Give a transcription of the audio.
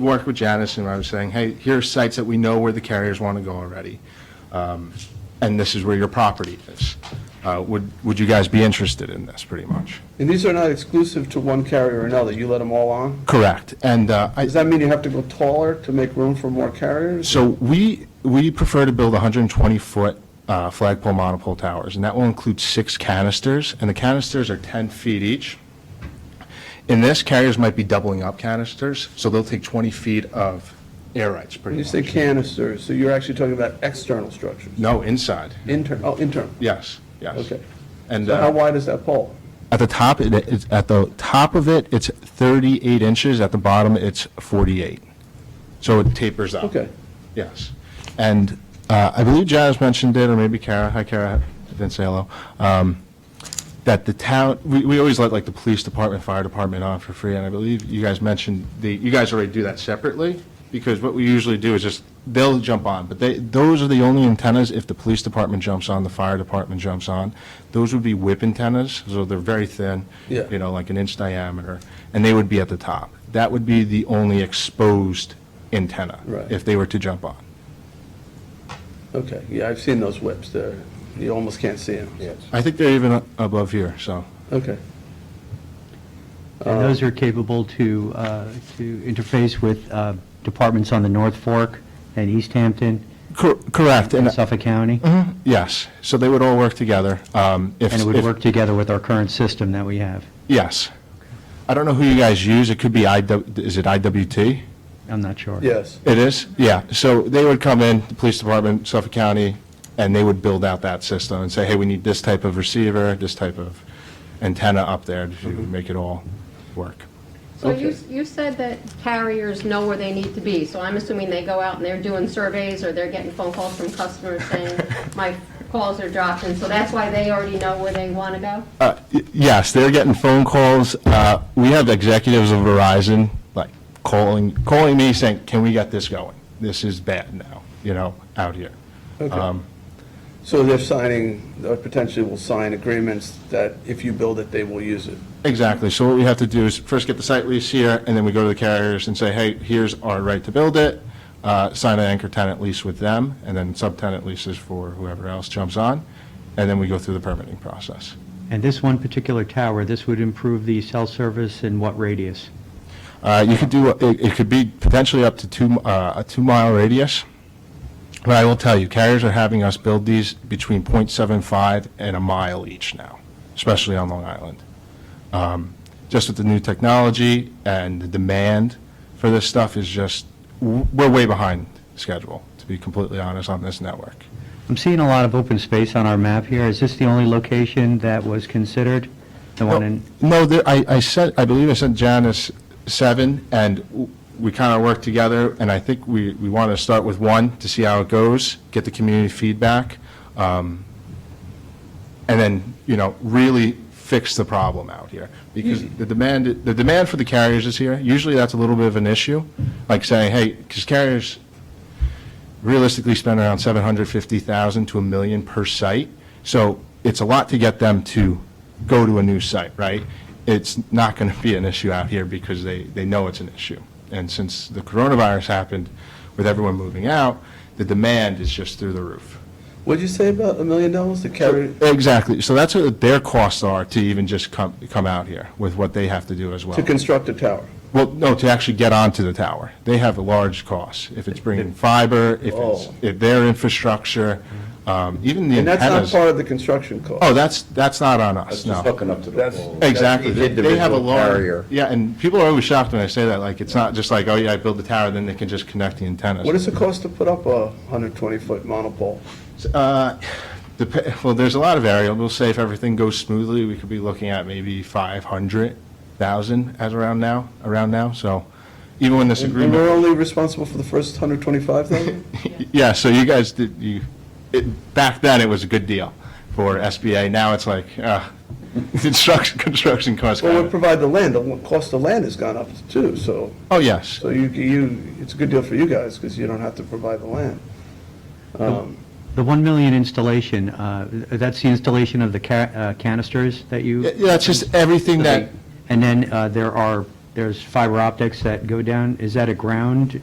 work with Janice and I was saying, hey, here's sites that we know where the carriers want to go already. um, And this is where your property is. Uh, Would, would you guys be interested in this, pretty much? And these are not exclusive to one carrier or another, you let them all on? Correct. And uh, I, Does that mean you have to go taller to make room for more carriers? so we, we prefer to build 120-foot uh, flagpole monopole towers, and that will include six canisters, and the canisters are 10 feet each. In this, carriers might be doubling up canisters, so they'll take 20 feet of air rights, pretty When you much. say canisters, so you're actually talking about external structures? No, inside. Internal, oh, internal. Yes, yes. Okay. And So how uh, wide is that pole? at the top, it- it's, at the top of it, it's 38 inches, at the bottom, it's 48. So it tapers up. Okay. Yes. And uh, I believe Janice mentioned it, or maybe Kara, hi Kara, I didn't say hello, um, that the town, we, we always let like the police department, fire department on for free, and I believe you guys mentioned, the you guys already do that separately, because what we usually do is just, they'll jump on, but they, those are the only antennas, if the police department jumps on, the fire department jumps on, those would be whip antennas, so they're very thin. Yeah. You know, like an inch diameter, and they would be at the top. That would be the only exposed antenna. Right. If they were to jump on. Okay, yeah, I've seen those whips, they're, you almost can't see them. Yes. I think they're even uh, above here, so. Okay. And those are capable to, uh, to interface with uh, departments on the North Fork and East Hampton Correct, and and, Suffolk County, yes, so they would all work together. um, And and it would work together with our current system that we have. Yes. I don't know who you guys use, it could be IW, is it IWT? I'm not sure. Yes, It is, yeah, so they would come in, the police department, Suffolk County, and they would build out that system and say, hey, we need this type of receiver, this type of antenna up there to Mm-hmm. make it all work. So you, Okay. you said that carriers know where they need to be, so I'm assuming they go out and they're doing surveys or they're getting phone calls from customers saying, my calls are dropping, so that's why they already know where they want to go? Uh, y- Yes, they're getting phone calls. Uh, We have executives of Verizon, like, calling, calling me saying, can we get this going? This is bad now, you know, out here. okay. So they're signing, or potentially will sign agreements that if you build it, they will use it. Exactly, so what we have to do is first get the site lease here, and then we go to the carriers and say, hey, here's our right to build it, Uh, sign an anchor tenant lease with them, and then subtenant leases for whoever else jumps on, and then we go through the permitting process. And this one particular tower, this would improve the cell service in what radius? Uh, You could do, it it could be potentially up to two, uh, a two-mile radius, but I will tell you, carriers are having us build these between .75 and a mile each now, especially on Long Island. Um, Just with the new technology and the demand for this stuff is just, w- we're way behind schedule, to be completely honest, on this network. I'm seeing a lot of open space on our map here. Is this the only location that was considered? The one in, No, there- I, I said, I believe I sent Janice seven, and w- we kind of worked together, and I think we, we want to start with one to see how it goes, get the community feedback, um, and then, you know, really fix the problem out here. Because the demand, the demand for the carriers is here. Usually that's a little bit of an issue, like saying, hey, because carriers realistically spend around 750,000 to a million per site. So it's a lot to get them to go to a new site, right? It's not going to be an issue out here because they, they know it's an issue. And since the coronavirus happened with everyone moving out, the demand is just through the roof. What'd you say about a million dollars to carry? Exactly. So that's what their costs are to even just come, come out here with what they have to do as well. To construct a tower. Well, no, to actually get onto the tower. They have a large cost. If it's bringing fiber, if it's, Oh. if their infrastructure, um, even the And that's not antennas. part of the construction cost. Oh, that's, that's not on us, no. hooking up to the pole. Exactly. They- They have a Individual large, carrier. yeah, and people are always shocked when I say that, like, it's not just like, oh, yeah, I build the tower, then they can just connect the antennas. What does it cost to put up a 120-foot monopole? Uh, dep- Well, there's a lot of variables. Say if everything goes smoothly, we could be looking at maybe 500,000 as around now, around now. So even when this And and we're agreement, only responsible for the first 125,000? yeah, so you guys did, you, it- back then, it was a good deal for SBA. Now it's like, uh, construction, construction costs. Well, kinda- we provide the land, the cost of land has gone up too, so, Oh, yes. so you, you, it's a good deal for you guys, because you don't have to provide the land. the 1 million installation, uh, that's the installation of the ca- uh, canisters that you? Yeah, it's just everything that, And then uh, there are there's fiber optics that go down, is that a ground